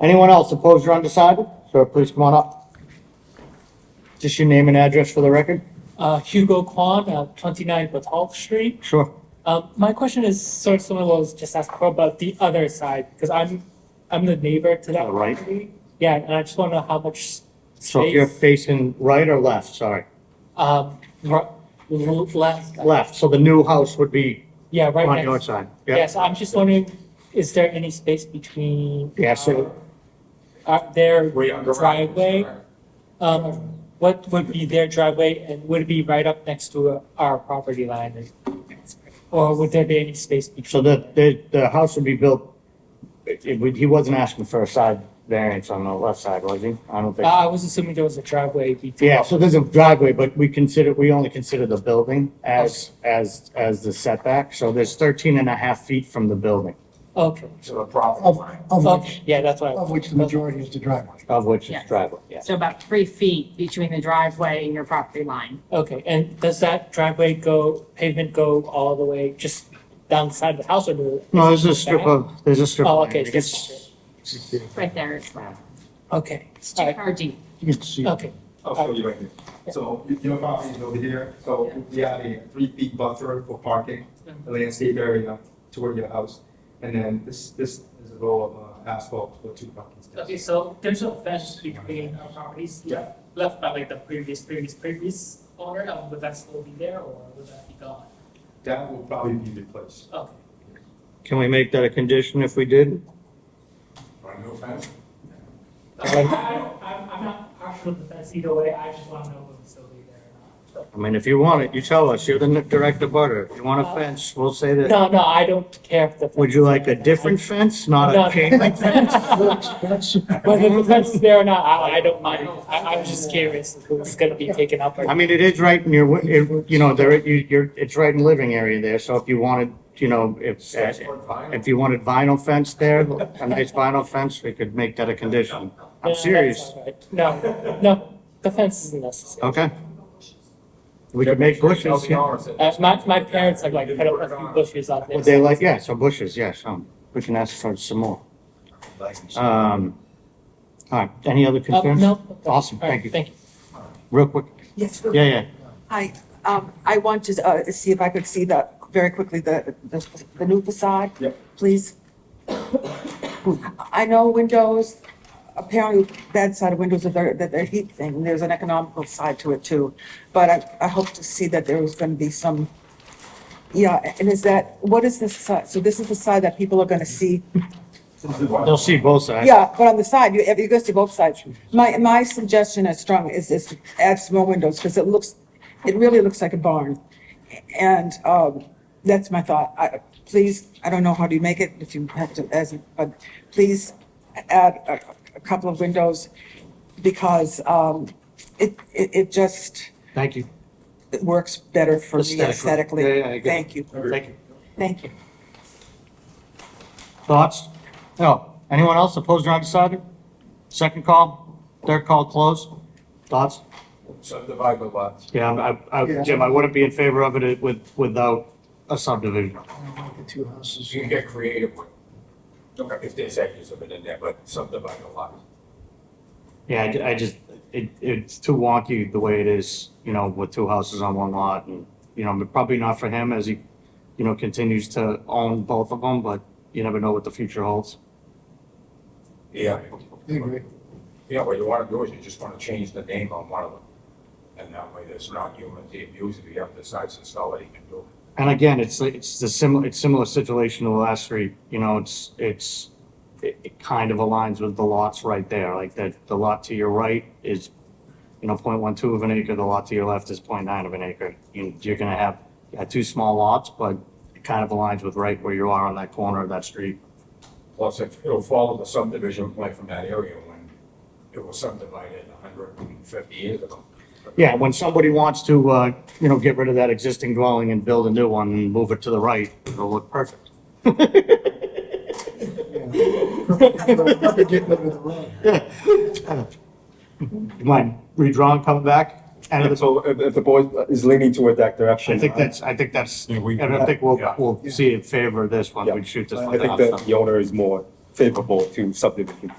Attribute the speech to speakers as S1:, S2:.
S1: Anyone else opposed or undecided? Sir, please come on up. Just your name and address for the record?
S2: Uh, Hugo Kwan, uh, 29 Batalk Street.
S1: Sure.
S2: Um, my question is sort of similar to what was just asked before about the other side, because I'm, I'm the neighbor to that
S1: Uh, right.
S2: property. Yeah, and I just want to know how much s-
S1: So if you're
S2: space,
S1: facing right or left, sorry?
S2: um, r- l- left,
S1: Left, so the new house would be
S2: yeah, right
S1: on
S2: next.
S1: your side?
S2: Yeah, so I'm just wondering, is there any space between?
S1: Yeah, so-
S2: uh, uh, their
S3: Way on the right.
S2: driveway, um, what would be their driveway and would it be right up next to our property line? Or would there be any space between?
S1: So the, the, the house would be built, it, it would- he wasn't asking for a side variance on the left side, was he? I don't
S2: Uh,
S1: think.
S2: I was assuming there was a driveway between.
S1: Yeah, so there's a driveway, but we consider, we only consider the building as, as, as the setback. So there's 13 and a half feet from the building,
S2: Okay,
S3: So the property
S4: Of,
S3: line.
S4: of
S2: okay,
S4: which,
S2: yeah, that's what I.
S4: of which the majority is the driveway.
S1: of which is
S5: Yes.
S1: driveway, yeah.
S5: So about three feet between the driveway and your property line.
S2: Okay, and does that driveway go, pavement go all the way just down the side of the house or? do-
S1: No, there's a strip of, there's a strip.
S2: Oh,
S1: of
S2: okay,
S1: land.
S2: it's
S1: It
S2: just-
S1: gets-
S5: Right there as well.
S2: Okay,
S5: It's
S2: all
S5: two
S2: right,
S5: car deep.
S4: You can see.
S2: okay,
S3: I'll show you right here. So your property is over here, so we have a three feet buffer for parking, a landscape area toward your house. And then this, this is a row of uh, asphalt for two parking
S2: okay,
S3: spaces.
S2: so there's a fence between our properties.
S3: Yeah.
S2: Left by like the previous, previous, previous owner, um, would that still be there or would that be gone?
S3: That will probably be replaced.
S2: Okay,
S1: Can we make that a condition if we did?
S3: No fence?
S2: I, I don't, I'm, I'm not partial to the fence either way, I just wanna know if it's still be there or not.
S1: I mean, if you want it, you tell us. You're the direct abutter. If you want a fence, we'll say that.
S2: Uh, No, no, I don't care if the.
S1: Would you like a different fence, not
S2: No.
S1: a chain link fence?
S4: That's,
S2: Whether the fence is there or not, I, I don't mind. I, I'm just curious who's gonna be taken up.
S1: I
S2: or-
S1: mean, it is right in your, it- you know, there, you, you're, it's right in living area there, so if you wanted, you know, if, if you wanted vinyl fence there, a nice vinyl fence, we could make that a condition.
S2: No,
S1: I'm
S2: that's
S1: serious,
S2: all right. No, no, the fence isn't necessary.
S1: okay? We could make bushes, yeah.
S2: Uh, my, my parents have like put up a few bushes out
S1: Would they
S2: there.
S1: like, yeah, so bushes, yeah, some, we can ask for some more. Um, all right, any other
S2: Uh,
S1: concerns?
S2: no. okay.
S1: Awesome,
S2: All right,
S1: thank you.
S2: Thank you.
S1: Real quick,
S6: Yes,
S1: yeah, yeah,
S6: hi, um, I want to, uh, see if I could see the, very quickly, the, the, the new facade.
S3: Yep.
S6: Please. I know windows, apparently bad side of windows are their, that they're heat thing, and there's an economical side to it too. But I, I hope to see that there was gonna be some, yeah, and is that, what is this side? So this is the side that people are gonna see
S1: they'll see both sides.
S6: yeah, but on the side, you, you're gonna see both sides. My, my suggestion as strong is, is to add some more windows, because it looks, it really looks like a barn. And, um, that's my thought. I, please, I don't know how do you make it, if you have to, as, but please add a, a couple of windows, because, um, it, it, it just,
S1: Thank you.
S6: it works better for me
S1: Aesthetically.
S6: aesthetically.
S1: Yeah, yeah, I get it.
S6: Thank you,
S1: Thank you.
S6: thank you.
S1: Thoughts? No. Anyone else opposed or undecided? Second call, third call closed. Thoughts?
S3: Subdivide the lots.
S1: Yeah, I, I, Jim, I wouldn't be in favor of it with, without a subdivision.
S4: the two houses.
S3: You can get creative with, it. if there's acres of it in there, but subdivide the lot.
S1: Yeah, I ju- I, just, it, it's too wonky the way it is, you know, with two houses on one lot and, you know, but probably not for him as he, you know, continues to own both of them, but you never know what the future holds.
S3: Yeah.
S4: I agree.
S3: Yeah, what you want to do is you just want to change the name on one of them. And that way there's not human to abuse if you have the size and solid you can do it.
S1: And again, it's, it's the similar, it's similar situation to the last three, you know, it's, it's, it, it kind of aligns with the lots right there, like that, the lot to your right is, you know, point one two of an acre, the lot to your left is point nine of an acre. You, you're gonna have, uh, two small lots, but it kind of aligns with right where you are on that corner of that street.
S3: Plus, if it'll follow the subdivision plan from that area when it was subdivided hundred and fifty years ago.
S1: Yeah, when somebody wants to, uh, you know, get rid of that existing dwelling and build a new one and move it to the right, it'll look perfect.
S4: Probably get rid of the road.
S1: You mind redrawn, coming back? End of the
S7: So if, if the board is leaning toward that direction.
S1: I think that's, I think that's,
S3: Yeah, we-
S1: and I think we'll,
S3: Yeah.
S1: we'll see in favor of this one,
S7: Yeah.
S1: we shoot this
S7: I
S1: one
S7: I
S1: down.
S7: think
S1: so.
S7: that the owner is more favorable to subdivision